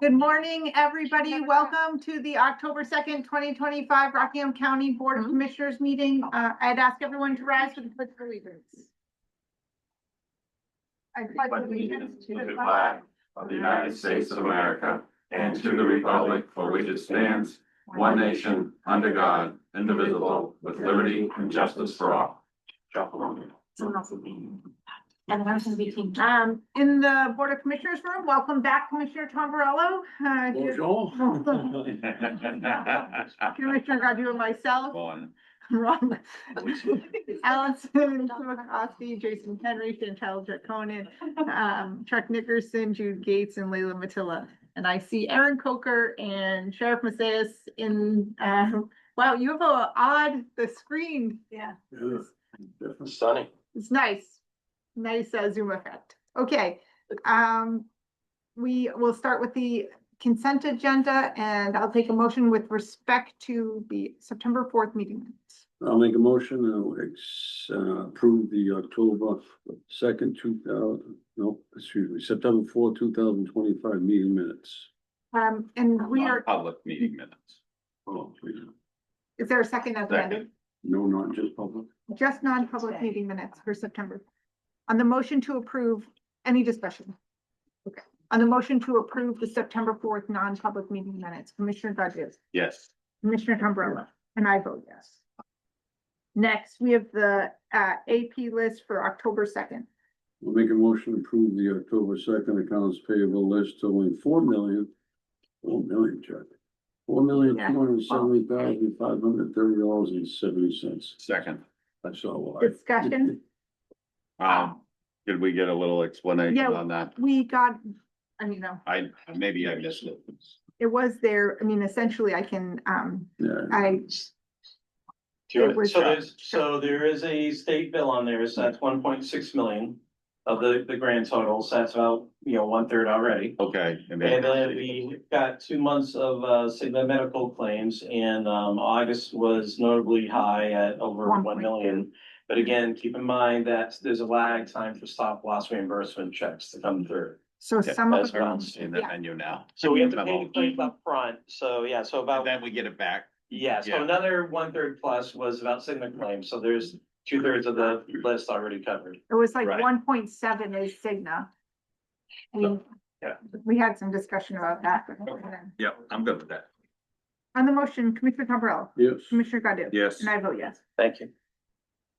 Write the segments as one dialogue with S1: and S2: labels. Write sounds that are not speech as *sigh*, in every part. S1: Good morning, everybody. Welcome to the October second, twenty twenty-five Rockingham County Board of Commissioners meeting. Uh, I'd ask everyone to rise for the pledge of allegiance. I
S2: pledge allegiance to the flag of the United States of America and to the republic for which it stands, one nation, under God, indivisible, with liberty and justice for *laughs* all.
S3: Someone else is being. And the person is being.
S1: Um, in the Board of Commissioners room, welcome back Commissioner Tombrello. Uh, Bonjour. Commissioner Godu and myself,
S2: One.
S1: Ron, *laughs* Allison, Simokoski, Jason Henry, Chantel Jaconin, um, Chuck Nickerson, Jude Gates, and Leila Matilla. And I see Aaron Coker and Sheriff Macias in, uh, wow, you have a odd, the screen
S3: Yeah.
S2: Sunny.
S1: it's nice, nice uh, zoom effect. Okay, um, we will start with the consent agenda and I'll take a motion with respect to the September fourth meeting. minutes.
S4: I'll make a motion to ex- uh, approve the October second, two thousand, no, excuse me, September fourth, two thousand twenty-five meeting minutes.
S1: Um, and we are,
S2: Public meeting minutes.
S4: Oh, please.
S1: is there a second amendment?
S4: No, not just public.
S1: Just non-public
S3: Today.
S1: meeting minutes for September. On the motion to approve, any discussion? Okay, on the motion to approve the September fourth non-public meeting minutes, Commissioner Godu?
S2: Yes.
S1: Commissioner Tombrilla, and I vote yes. Next, we have the uh AP list for October second.
S4: I'll make a motion to approve the October second accounts payable list totaling four million, four million, Chuck. Four million, two hundred and seventy thousand, five hundred and thirty dollars and seventy cents.
S2: Second.
S4: That's all. I-
S1: Discussion,
S2: Um, did we get a little explanation
S1: Yeah.
S2: on that?
S1: we got, I mean, no,
S2: I, maybe I missed it.
S1: it was there, I mean, essentially, I can, um,
S4: Yeah.
S1: I, It
S5: Sure,
S1: was-
S5: so there's, so there is a state bill on there, so that's one point six million of the, the grand totals, that's about, you know, one third already.
S2: Okay.
S5: And then we got two months of, uh, Cigna medical claims, and, um, August was notably high at over
S1: One
S5: one
S1: point.
S5: million. But again, keep in mind that there's a lag time for stop loss reimbursement checks to come through.
S1: so
S2: Yeah,
S1: some
S5: that's
S1: of.
S2: I
S1: them-
S2: don't see the
S1: yeah.
S2: menu now.
S5: So we have to pay the claims upfront, so yeah, so about.
S2: And Then we get it back.
S5: Yeah, so
S2: Yeah.
S5: another one third plus was about Cigna claims, so there's two thirds of the list already covered.
S1: It was like
S2: Right.
S1: one point seven is Cigna. We,
S5: Yeah.
S1: we had some discussion about that.
S2: Yeah, I'm good with that.
S1: On the motion, Commissioner Tombrilla,
S4: Yes.
S1: Commissioner Godu?
S2: Yes.
S1: And I vote yes.
S5: Thank you.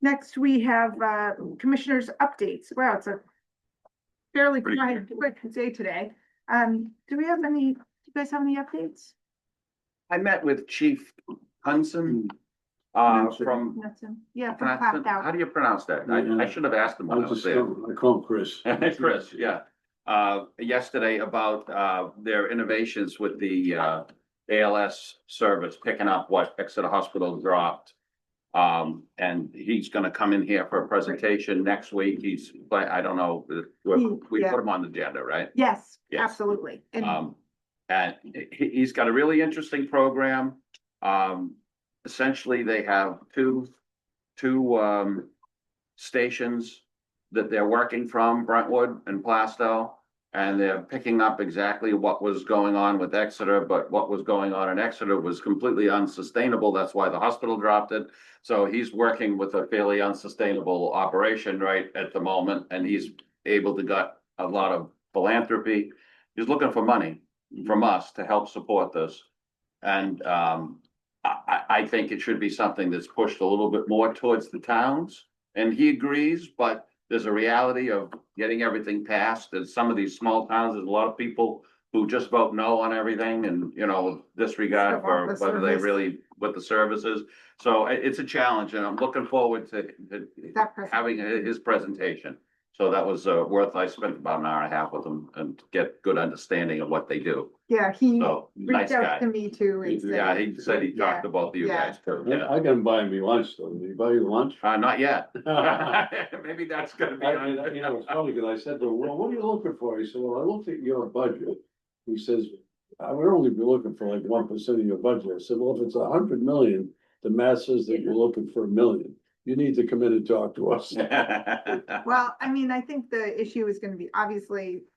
S1: Next, we have uh, commissioners' updates. Wow, it's a fairly
S2: Pretty
S1: quiet- quick day today. Um, do we have any, do you guys have any updates?
S2: I met with Chief Hunson, uh,
S4: Mm. Hunson.
S2: from.
S1: Nothing. Yeah, from
S2: Hunson?
S1: clapped
S2: How
S1: out.
S2: do you pronounce that? I, I should have asked him
S4: I
S2: when I was
S4: just,
S2: there.
S4: I call Chris.
S2: Chris, yeah, uh, yesterday about, uh, their innovations with the, uh, ALS service, picking up what Exeter Hospital dropped. Um, and he's gonna come in here for a presentation next week. He's, but I don't know, we, we
S1: Yeah.
S2: put him on the agenda, right?
S1: Yes,
S2: Yes.
S1: absolutely. And
S2: Um, and he, he's got a really interesting program. Um, essentially, they have two, two, um, stations that they're working from, Brentwood and Plastow. And they're picking up exactly what was going on with Exeter, but what was going on in Exeter was completely unsustainable. That's why the hospital dropped it. So he's working with a fairly unsustainable operation right at the moment, and he's able to got a lot of philanthropy he's looking for money
S1: Mm-hmm.
S2: from us to help support this. And um, I, I, I think it should be something that's pushed a little bit more towards the towns. And he agrees, but there's a reality of getting everything passed. And some of these small towns, there's a lot of people who just vote no on everything and, you know, disregard
S1: Still want
S2: for
S1: the
S2: whether they
S1: service.
S2: really, what the service is. So it, it's a challenge and I'm looking forward to, to
S1: that person,
S2: having hi- his presentation. So that was uh, worth, I spent about an hour and a half with him and to get good understanding of what they do.
S1: yeah, he
S2: So, nice
S1: reached out
S2: guy.
S1: to me too. and said-
S2: Yeah, he said he talked to both of you
S1: Yeah.
S2: guys too.
S4: I
S2: Yeah.
S4: I can buy me lunch though. Did you buy you lunch? *laughs*
S2: Uh, not yet. *laughs*
S4: I-
S2: Maybe that's gonna be.
S4: I- You know, it's funny because I said to him, well, what are you looking for? He said, well, I looked at your budget. He says, I would only be looking for like one percent of your budget. I said, well, if it's a hundred million, the math says that you're looking for a million. You need to come in and talk to us.
S2: *laughs*
S1: Well, I mean, I think the issue is gonna be, obviously,